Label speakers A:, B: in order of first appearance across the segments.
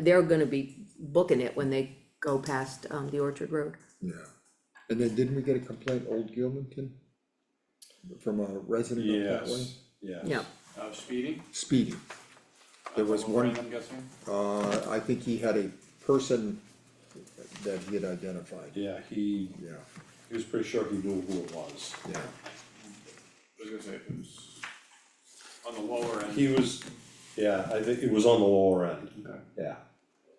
A: They're gonna be booking it when they go past, um, the Orchard Road.
B: Yeah, and then didn't we get a complaint, Old Gilmanton? From a resident of that way?
C: Yes, yes.
A: Yeah.
D: Uh, speeding?
B: Speeding. There was
D: Over,
B: one,
D: I'm guessing?
B: uh, I think he had a person that he had identified,
C: Yeah, he,
B: yeah,
C: he was pretty sure he knew who it was.
B: yeah,
D: I was gonna say, it was on the lower end.
C: He was, yeah, I think it was on the lower end,
D: Okay.
C: yeah,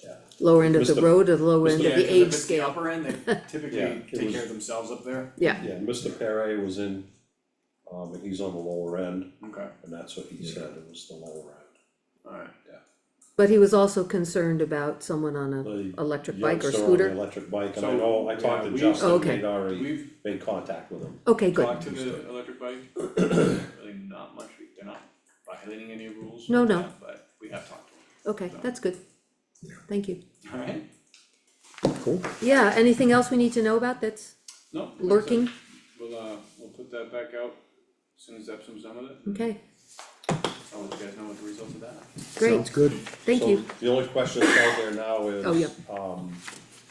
C: yeah.
A: Lower end of
C: Mr.
A: the road or the lower end of
C: Mr.
D: Yeah, 'cause
A: the
D: if
A: age
D: it's the
A: scale?
D: upper end, they typically
C: Yeah, it
D: take
C: was-
D: care of themselves up there,
A: Yeah,
C: Yeah, Mr. Pere was in, um, and he's on the lower end,
D: okay,
C: and that's what he said, it was the lower end.
D: alright.
A: but he was also concerned about someone on a
C: The
A: electric bike or
C: Youngster on the
A: scooter.
C: Electric bike, and I
D: So,
C: know, I
D: yeah,
C: talked to
D: we-
A: Oh,
C: Justin,
A: okay.
C: they'd already
D: We've
C: made contact with him.
A: Okay, good.
D: talked to the electric bike, really not much, we- they're not violating any rules.
A: No, no.
D: yeah, But we have talked to
A: Okay, that's good.
B: Yeah.
A: Thank you.
D: them, alright?
B: cool.
A: Yeah, anything else we need to know about that's
D: No. like I said,
A: lurking?
D: We'll, uh, we'll put that back out as soon as Epsom's done with it,
A: Okay,
D: I'll let you guys know what the results of that. are.
B: Sounds
A: great,
B: good,
A: thank
C: So
A: you.
C: The only question that's out there now is,
A: Oh, yep.
C: um,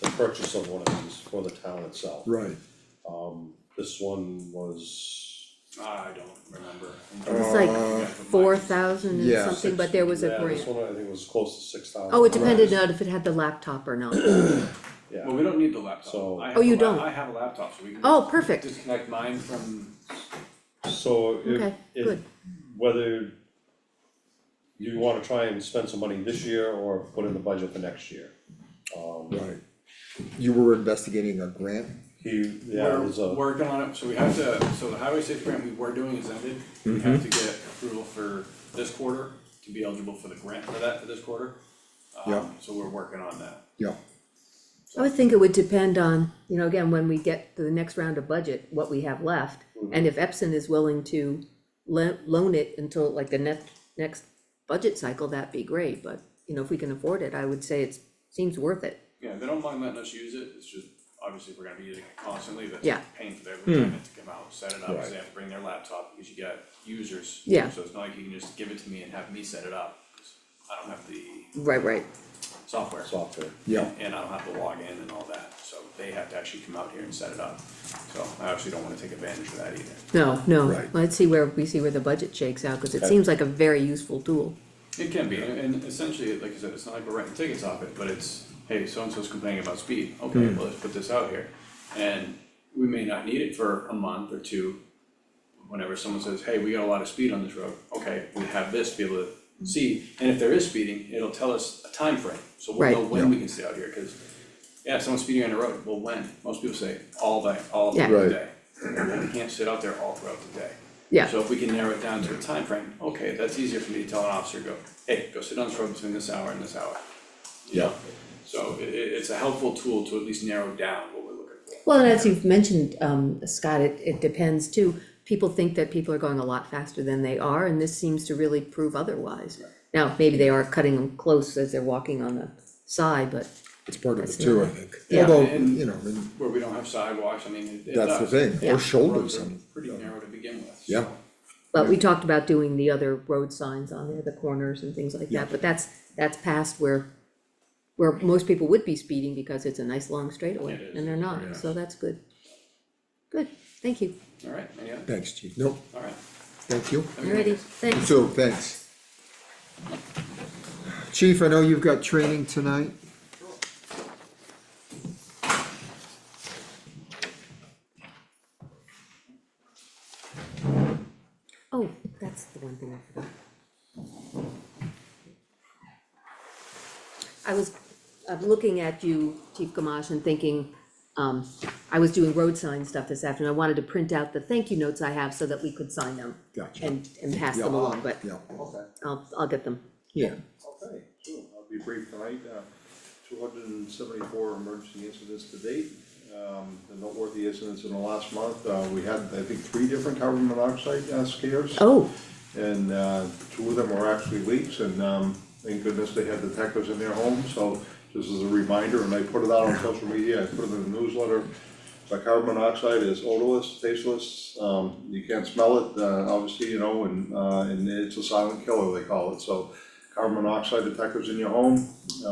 C: the purchase of one of these for the town itself.
B: right,
C: Um, this one was,
D: I don't remember.
A: It's
B: Uh,
A: like
D: Yeah, but
A: four
D: mine-
A: thousand and
B: yeah,
A: something, but there was a
C: yeah, this
A: grant.
C: one I think was close to six thousand.
A: Oh, it depended on if it had the laptop or not.
C: Yeah,
D: Well, we don't need the laptop.
C: So-
D: I
A: Oh,
D: have
A: you
D: a lap-
A: don't?
D: I have a laptop, so we can.
A: Oh, perfect.
D: Disconnect mine from,
C: so if,
A: Okay,
C: if,
A: good.
C: whether you wanna try and spend some money this year or put in the budget for next year. Um,
B: right. You were investigating a grant,
C: he, yeah,
D: we're
C: there's a,
D: working on it, so we have to, so the highway safety grant we were doing is ended. We have to
C: Mm-hmm.
D: get approval for this quarter to be eligible for the grant for that for this quarter. Um,
B: Yeah.
D: So we're working on that.
B: yeah,
A: I would think it would depend on, you know, again, when we get to the next round of budget, what we have left. And if Epson is willing to lo- loan it until like the next, next budget cycle, that'd be great, but, you know, if we can afford it, I would say it's, seems worth it.
D: Yeah, they don't mind letting us use it, it's just, obviously, we're gonna be using it constantly, that's
A: Yeah.
D: painful every time it to come out, set it up,
B: Right.
D: cause they have to bring their laptop, because you got users.
A: Yeah.
D: So it's not like you can just give it to me and have me set it up, 'cause I don't have the
A: Right, right,
D: software.
C: software.
B: yeah,
D: And I don't have to log in and all that, so they have to actually come out here and set it up. So I actually don't wanna take advantage of that either.
A: no, no,
B: Right.
A: let's see where, we see where the budget shakes out, cause it
C: Okay.
A: seems like a very useful tool.
D: It can be, and essentially, like I said, it's not like we're writing tickets off it, but it's, hey, so-and-so's complaining about speed, okay,
A: Hmm.
D: well, let's put this out here. And we may not need it for a month or two, whenever someone says, hey, we got a lot of speed on this road, okay, we have this to be able to see. And if there is speeding, it'll tell us a time frame, so we'll know
A: Right.
D: when we can stay out here, cause yeah, someone's speeding on the road, well, when? Most people say all day, all
A: Yeah.
B: Right.
D: throughout the day. Well, we can't sit out there all throughout the day.
A: Yeah,
D: So if we can narrow it down to a time frame, okay, that's easier for me to tell an officer, go, hey, go sit on this road between this hour and this hour. You know?
B: Yeah.
D: So i- i- it's a helpful tool to at least narrow down what we're looking for.
A: well, and as you've mentioned, um, Scott, it, it depends too. People think that people are going a lot faster than they are, and this seems to really prove otherwise. Now, maybe they are cutting them close as they're walking on the side, but,
B: it's part of
A: That's
B: it too, I think,
A: Yeah.
B: although,
D: And-
B: you know, I mean,
D: Where we don't have sidewalks, I mean, it it
B: that's the
D: does.
B: thing,
A: Yeah.
B: or shoulders,
D: Roads are
B: and,
D: Pretty narrow to begin with.
B: Yeah.
D: so.
A: but we talked about doing the other road signs on there, the corners and things like that, but that's, that's past where, where most people would be speeding because it's a nice long
D: It
A: straightaway,
D: is,
A: and they're not, so that's good. Good, thank you,
D: Alright, any other,
B: thanks, chief, no,
D: alright.
B: thank you.
D: Have a good
A: alrighty,
D: night.
A: thanks.
B: So, thanks. Chief, I know you've got training tonight.
A: Oh, that's the one thing I forgot. I was, uh looking at you, Chief Gamache, and thinking, um, I was doing road sign stuff this afternoon, I wanted to print out the thank you notes I have so that we could sign them.
B: Gotcha.
A: And, and pass
B: Yeah.
A: them along, but
B: Yeah,
C: Okay.
A: I'll, I'll get them.
B: yeah,
C: Okay, sure, I'll be brief tonight, uh, two hundred and seventy-four emergency incidents to date. Um, the noteworthy incidents in the last month, uh, we had, I think, three different carbon monoxide uh, scares.
A: Oh,
C: And, uh, two of them were actually leaks and, um, thank goodness they had detectives in their home, so just as a reminder, and I put it out on social media, I put it in the newsletter. But carbon monoxide is odorless, tasteless, um, you can't smell it, uh, obviously, you know, and, uh, and it's a silent killer, they call it, so carbon monoxide detectors in your home,